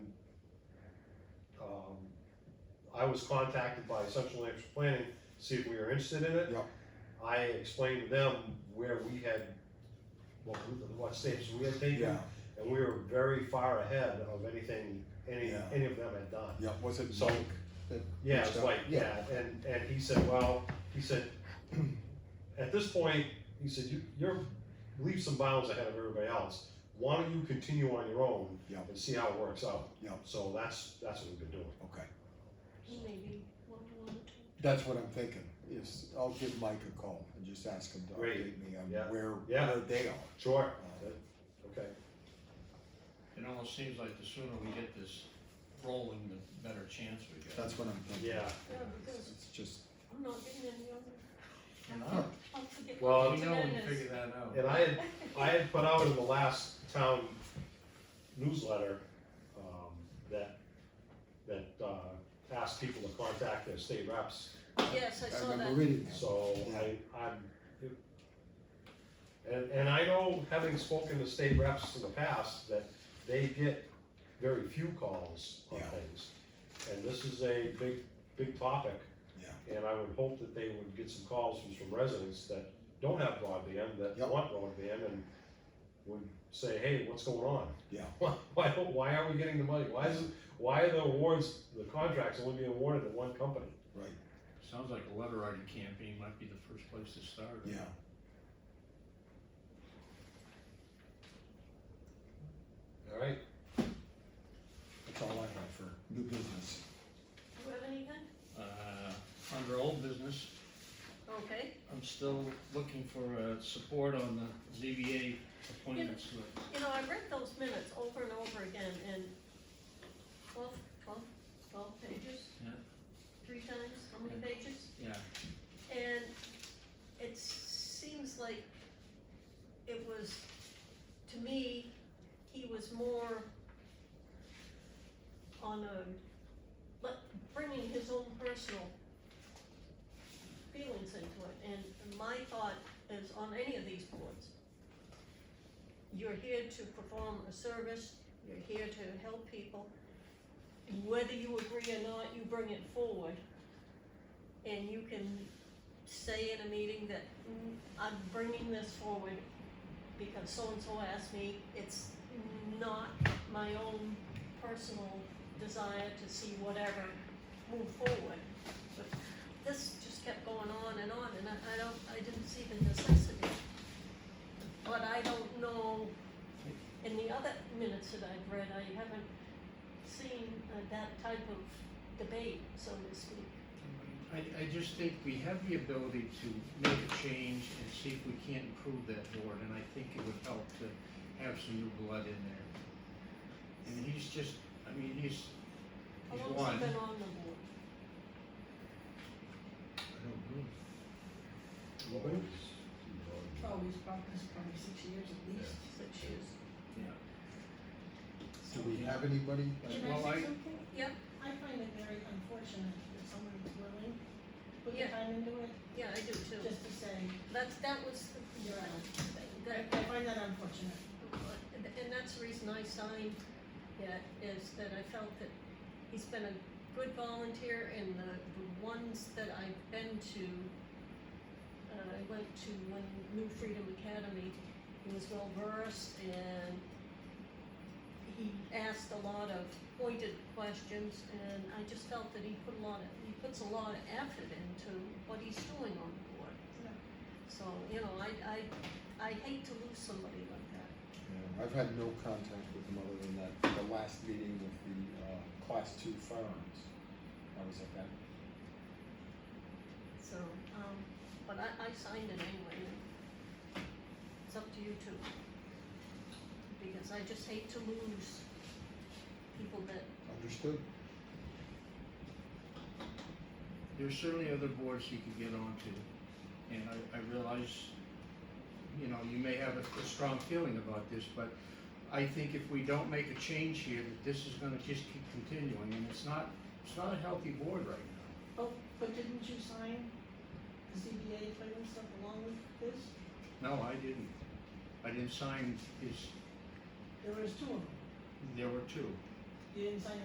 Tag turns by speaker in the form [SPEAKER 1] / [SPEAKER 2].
[SPEAKER 1] Um, I was contacted by Central New Hampshire Planning, to see if we were interested in it.
[SPEAKER 2] Yeah.
[SPEAKER 1] I explained to them where we had, what, what steps we had taken,
[SPEAKER 2] Yeah,
[SPEAKER 1] and we were very far ahead of anything, any,
[SPEAKER 2] Yeah.
[SPEAKER 1] any of them had done.
[SPEAKER 2] yeah, was it
[SPEAKER 1] So-
[SPEAKER 2] Mike? that
[SPEAKER 1] Yeah,
[SPEAKER 2] reached
[SPEAKER 1] it's
[SPEAKER 2] out?
[SPEAKER 1] like, yeah, and, and he said, well, he said, at this point, he said, you, you're leaps and bounds ahead of everybody else. Why don't you continue on your own
[SPEAKER 2] Yeah.
[SPEAKER 1] and see how it works out?
[SPEAKER 2] Yeah.
[SPEAKER 1] So that's, that's what we've been doing.
[SPEAKER 2] Okay,
[SPEAKER 3] Maybe one, one, two.
[SPEAKER 2] that's what I'm thinking, is I'll give Mike a call and just ask him to
[SPEAKER 1] Great.
[SPEAKER 2] update me on
[SPEAKER 1] Yeah.
[SPEAKER 2] where,
[SPEAKER 1] Yeah.
[SPEAKER 2] where they are.
[SPEAKER 1] Sure.
[SPEAKER 2] Uh,
[SPEAKER 1] Okay.
[SPEAKER 4] It almost seems like the sooner we get this rolling, the better chance we get.
[SPEAKER 2] That's what I'm thinking.
[SPEAKER 1] Yeah.
[SPEAKER 3] Yeah,
[SPEAKER 2] It's
[SPEAKER 3] because
[SPEAKER 2] it's just,
[SPEAKER 3] I'm not getting any other.
[SPEAKER 4] You know,
[SPEAKER 3] I'll forget
[SPEAKER 1] Well,
[SPEAKER 4] we
[SPEAKER 3] to
[SPEAKER 4] know when we
[SPEAKER 3] notice.
[SPEAKER 4] figure that out.
[SPEAKER 1] And I had, I had put out in the last town newsletter, um, that, that, uh, asked people to contact their state reps
[SPEAKER 3] Yes, I
[SPEAKER 2] I
[SPEAKER 3] saw that.
[SPEAKER 2] remember reading that.
[SPEAKER 1] So I, I'm, it- and, and I know, having spoken to state reps in the past, that they get very few calls on
[SPEAKER 2] Yeah.
[SPEAKER 1] things. And this is a big, big topic,
[SPEAKER 2] Yeah,
[SPEAKER 1] and I would hope that they would get some calls from some residents that don't have broadband, that
[SPEAKER 2] Yep.
[SPEAKER 1] want broadband, and would say, hey, what's going on?
[SPEAKER 2] Yeah.
[SPEAKER 1] Why, why, don't- why aren't we getting the money? Why is, it- why are the awards, the contracts only being awarded to one company?
[SPEAKER 2] right,
[SPEAKER 4] Sounds like a letter writing campaign might be the first place to start.
[SPEAKER 2] yeah.
[SPEAKER 1] All right,
[SPEAKER 2] That's all I have for new business.
[SPEAKER 3] Do you have anything?
[SPEAKER 4] Uh, under old business,
[SPEAKER 3] Okay,
[SPEAKER 4] I'm still looking for, uh, support on the ZBA appointments. list.
[SPEAKER 3] you know, I read those minutes over and over again in twelve, twelve, twelve pages.
[SPEAKER 4] Yeah.
[SPEAKER 3] Three times, how many pages?
[SPEAKER 4] Yeah,
[SPEAKER 3] And it seems like it was, to me, he was more on a, let, bringing his own personal feelings into it, and my thought is on any of these boards. You're here to perform a service, you're here to help people. Whether you agree or not, you bring it forward. And you can say in a meeting that "Mm, I'm bringing this forward because so-and-so asked me, it's not my own personal desire to see whatever move forward. But this just kept going on and on, and I, I don't, I didn't see the necessity. But I don't know, in the other minutes that I've read, I haven't seen uh, that type of debate, so to speak.
[SPEAKER 4] I, I just think we have the ability to make a change and see if we can't improve that board, and I think it would help to have some new blood in there. And he's just, I mean, he's,
[SPEAKER 3] How
[SPEAKER 4] he's
[SPEAKER 3] long
[SPEAKER 4] one.
[SPEAKER 3] has he been on the board?
[SPEAKER 5] Oh, he's probably, probably six years at least.
[SPEAKER 3] Six years.
[SPEAKER 2] Do we have anybody?
[SPEAKER 5] Can
[SPEAKER 4] Well,
[SPEAKER 5] I
[SPEAKER 4] I-
[SPEAKER 5] say something?
[SPEAKER 3] Yeah.
[SPEAKER 5] I find it very unfortunate that someone's willing, to put the
[SPEAKER 3] Yeah.
[SPEAKER 5] time into it,
[SPEAKER 3] Yeah, I do too.
[SPEAKER 5] just to say,
[SPEAKER 3] That's, that was, the-
[SPEAKER 5] you're out. I,
[SPEAKER 3] that,
[SPEAKER 5] I find that unfortunate.
[SPEAKER 3] and that's the reason I signed it, is that I felt that he's been a good volunteer and the, the ones that I've been to, uh, I went to one New Freedom Academy, he was well versed and he asked a lot of pointed questions and I just felt that he put a lot of, he puts a lot of effort into what he's doing on the board.
[SPEAKER 5] Yeah.
[SPEAKER 3] So, you know, I, I I hate to lose somebody like that.
[SPEAKER 2] Yeah, I've had no contact with him other than that, the last meeting with the, uh, class two firearms. I was at that.
[SPEAKER 3] So, um, but I, I signed it anyway. It's up to you two. Because I just hate to lose people that,
[SPEAKER 2] Understood.
[SPEAKER 4] There's certainly other boards you could get onto, and I, I realize, you know, you may have a, a strong feeling about this, but I think if we don't make a change here, that this is gonna just keep continuing, and it's not, it's not a healthy board right now.
[SPEAKER 5] Oh, but didn't you sign the CBA appointment stuff along with this?
[SPEAKER 4] No, I didn't. I didn't sign his,
[SPEAKER 5] There was two of them.
[SPEAKER 4] there were two.
[SPEAKER 5] You didn't sign